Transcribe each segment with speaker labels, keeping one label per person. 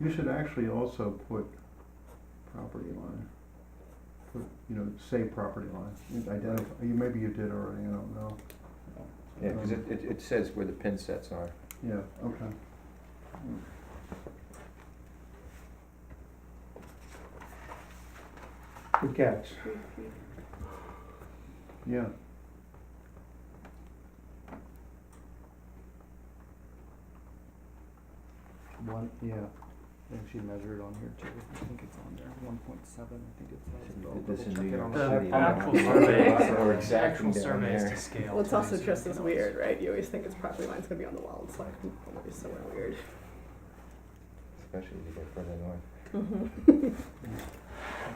Speaker 1: You should actually also put property line, put, you know, say property line, and identify, you, maybe you did already, I don't know.
Speaker 2: Yeah,
Speaker 1: Um,
Speaker 2: because it, it, it says where the pin sets are.
Speaker 1: Yeah, okay.
Speaker 3: Good catch.
Speaker 1: Yeah.
Speaker 4: One, yeah, and she measured on here too, I think it's on there, one point seven, I think it's. I'll
Speaker 2: This in
Speaker 4: double
Speaker 2: New
Speaker 4: check it
Speaker 2: York
Speaker 4: on
Speaker 2: City.
Speaker 4: the-
Speaker 5: The
Speaker 2: you know,
Speaker 5: actual
Speaker 2: it's
Speaker 5: survey-
Speaker 2: Or
Speaker 5: The actual
Speaker 2: exacting down
Speaker 5: survey is
Speaker 2: there.
Speaker 5: to scale.
Speaker 6: Well, it's
Speaker 5: too,
Speaker 6: also
Speaker 5: so you
Speaker 6: just
Speaker 5: can
Speaker 6: as
Speaker 5: always-
Speaker 6: weird, right? You always think it's property line's gonna be on the wall, it's like, oh, it's somewhere weird.
Speaker 2: Especially if you go further north.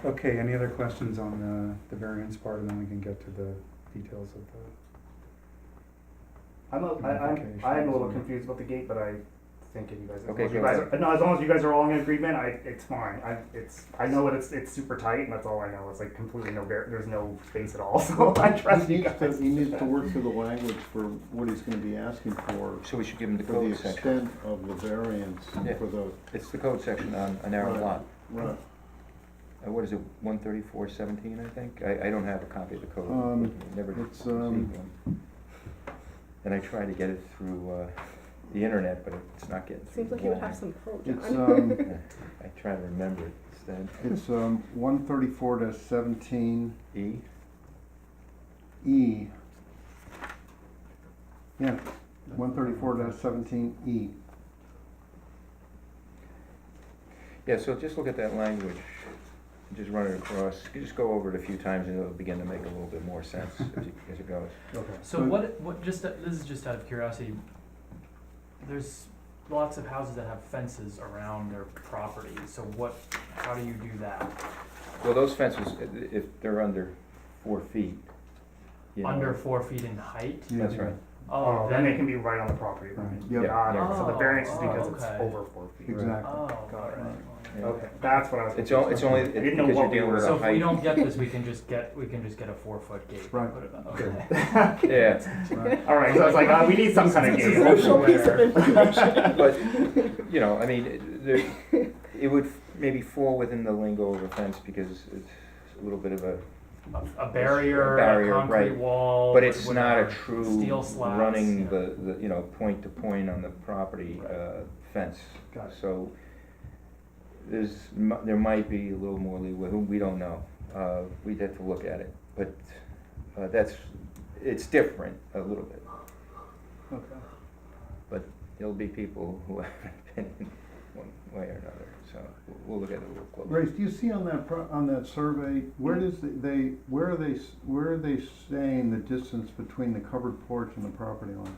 Speaker 3: Okay, any other questions on the, the variance part, and then we can get to the details of the,
Speaker 4: I'm, a- I, I'm, I am a little
Speaker 3: Modifications.
Speaker 4: confused about the gate, but I think if you guys, as long
Speaker 2: Okay,
Speaker 4: as you
Speaker 2: go
Speaker 4: guys,
Speaker 2: ahead.
Speaker 4: are- no, as long as you guys are all in agreement, I, it's fine, I, it's, I know that it's, it's super tight, and that's all I know, it's like completely no, var- there's no space at all, so I trust
Speaker 1: He
Speaker 4: you
Speaker 1: needs to,
Speaker 4: guys.
Speaker 1: he needs to work through the language for what he's gonna be asking for,
Speaker 2: So we should give them the
Speaker 1: for the
Speaker 2: code section.
Speaker 1: extent of the variance
Speaker 2: Yeah.
Speaker 1: for the,
Speaker 2: It's the code section on a narrow
Speaker 1: Right.
Speaker 2: lot.
Speaker 1: right.
Speaker 2: Uh, What is it, one thirty-four seventeen, I think? I, I don't have a copy of the code.
Speaker 1: Um,
Speaker 2: with me. Never
Speaker 1: it's,
Speaker 2: received
Speaker 1: um,
Speaker 2: one. And I try to get it through, uh, the internet, but it's not getting through.
Speaker 6: Seems
Speaker 2: the
Speaker 6: like you would
Speaker 2: wall.
Speaker 6: have some pro,
Speaker 1: It's,
Speaker 4: uh,
Speaker 6: John.
Speaker 1: um,
Speaker 2: I try to remember it instead.
Speaker 1: it's, um, one thirty-four to seventeen
Speaker 2: E,
Speaker 1: E. Yeah, one thirty-four to seventeen E.
Speaker 2: yeah, so just look at that language, and just run it across, you just go over it a few times and it'll begin to make a little bit more sense as it, as it goes.
Speaker 4: Okay.
Speaker 5: So what, what, just, uh, this is just out of curiosity, there's lots of houses that have fences around their property, so what, how do you do that?
Speaker 2: Well, those fences, i- i- if they're under four feet, you know,
Speaker 5: Under four feet in height?
Speaker 2: That's right.
Speaker 4: Oh,
Speaker 5: Oh,
Speaker 4: then they
Speaker 5: then,
Speaker 4: can be right on the property line.
Speaker 3: Right.
Speaker 1: Yep.
Speaker 2: Yeah, yeah.
Speaker 4: Got it. So the variance is
Speaker 5: Oh,
Speaker 4: because it's
Speaker 5: okay.
Speaker 4: over four feet.
Speaker 1: Exactly.
Speaker 5: oh, alright.
Speaker 2: Yeah.
Speaker 4: Okay, that's what I was.
Speaker 2: It's all, it's only,
Speaker 4: I didn't
Speaker 2: it-
Speaker 4: know
Speaker 2: because
Speaker 4: what
Speaker 2: you're
Speaker 4: we
Speaker 2: dealing
Speaker 4: were-
Speaker 2: with
Speaker 5: So
Speaker 2: a
Speaker 5: if we
Speaker 2: height,
Speaker 5: don't get this, we can just get, we can just get a four-foot gate. and
Speaker 1: Right.
Speaker 5: put it up.
Speaker 4: Good.
Speaker 5: Okay.
Speaker 2: yeah,
Speaker 1: Right.
Speaker 4: All right, so I was like, uh, we need some kind of
Speaker 6: It's
Speaker 4: gate.
Speaker 6: a crucial piece of
Speaker 4: somewhere.
Speaker 6: information.
Speaker 2: But, you know, I mean, it- there, it would maybe fall within the lingo of a fence because it's a little bit of a,
Speaker 5: A, a barrier, a
Speaker 2: barrier,
Speaker 5: concrete
Speaker 2: right.
Speaker 5: wall.
Speaker 2: but it's not a
Speaker 5: whatever.
Speaker 2: true
Speaker 5: Steel slabs,
Speaker 2: running
Speaker 5: yeah.
Speaker 2: the, the, you know, point to point on the property,
Speaker 5: Right.
Speaker 2: uh, fence.
Speaker 4: Got it.
Speaker 2: So there's, mi- there might be a little more leeway, we don't know, uh, we'd have to look at it, but, uh, that's, it's different a little bit.
Speaker 1: Okay.
Speaker 2: There'll be people who have an opinion one way or another, so we'll- we'll look at it a little closer.
Speaker 1: Grace, do you see on that, pro- on that survey, where does the- they, where are they, s- where are they saying the distance between the covered porch and the property line?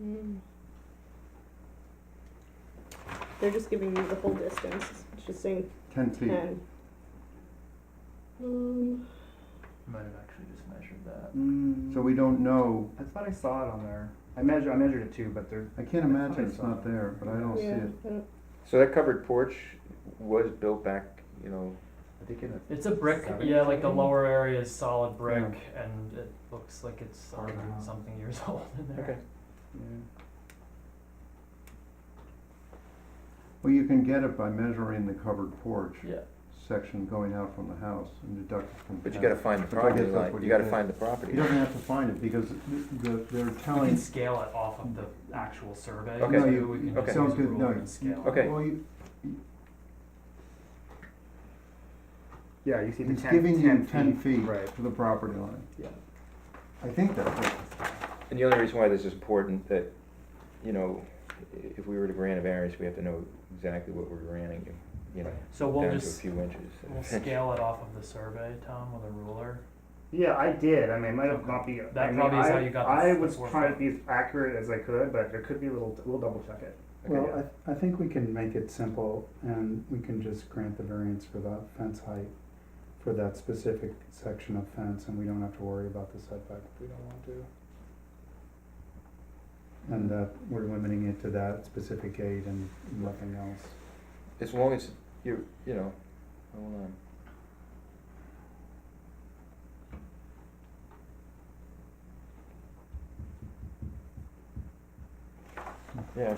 Speaker 6: Mm. They're just giving you the whole distance, it's just saying
Speaker 1: Ten feet.
Speaker 6: ten. Um,
Speaker 5: Might have actually just measured that.
Speaker 2: Mm.
Speaker 1: So we don't know,
Speaker 4: I thought I saw it on there. I measured, I measured it too, but there.
Speaker 1: I can't imagine it's not there, but
Speaker 4: Oh,
Speaker 1: I don't see
Speaker 6: yeah,
Speaker 1: it.
Speaker 6: I don't,
Speaker 2: So that covered porch was built back, you know,
Speaker 4: I think in the.
Speaker 5: It's a brick,
Speaker 4: Seven.
Speaker 5: yeah, like the lower area is solid brick, and it looks like it's a
Speaker 4: Hard
Speaker 5: hundred and
Speaker 4: out.
Speaker 5: something years old in there.
Speaker 4: Yeah.
Speaker 1: Well, you can get it by measuring the covered porch
Speaker 5: Yeah,
Speaker 1: section going out from the house and deduct it from.
Speaker 2: but you
Speaker 1: 10.
Speaker 2: gotta find the
Speaker 1: But I guess
Speaker 2: property
Speaker 1: that's
Speaker 2: line,
Speaker 1: what
Speaker 2: you
Speaker 1: you
Speaker 2: gotta
Speaker 1: did.
Speaker 2: find the property.
Speaker 1: He doesn't have to find it because the, the- they're
Speaker 5: we
Speaker 1: telling.
Speaker 5: can scale it off of the actual survey,
Speaker 2: Okay. No,
Speaker 1: you-
Speaker 5: too, we can just
Speaker 1: sounds
Speaker 5: use a
Speaker 1: good, no.
Speaker 5: ruler and scale. it.
Speaker 2: Okay.
Speaker 1: Well, you,
Speaker 4: Yeah, you see the
Speaker 1: he's
Speaker 4: ten,
Speaker 1: giving you ten
Speaker 4: ten
Speaker 1: feet
Speaker 4: Right.
Speaker 1: to the property line.
Speaker 4: Yeah.
Speaker 1: I think that's it.
Speaker 2: And the only reason why this is important, that, you know, i- if we were to grant a variance, we have to know exactly what we're granting, you know,
Speaker 5: So we'll
Speaker 2: down to a
Speaker 5: just,
Speaker 2: few inches.
Speaker 5: we'll scale it off of the survey, Tom, with a ruler.
Speaker 4: Yeah, I did. I mean, it might have not be.
Speaker 5: That
Speaker 4: I mean,
Speaker 5: probably is
Speaker 4: I,
Speaker 5: how you got the
Speaker 4: I
Speaker 5: f-
Speaker 4: was
Speaker 5: four
Speaker 4: trying to
Speaker 5: foot.
Speaker 4: be as accurate as I could, but there could be a little. We'll double check it.
Speaker 2: Okay, yeah.
Speaker 3: well, I, I think we can make it simple, and we can just grant the variance for that fence height, for that specific section of fence, and we don't have to worry about the setback if we don't want to. And that we're limiting it to that specific gate and nothing else.
Speaker 2: As long as you, you know, hold on. Yeah,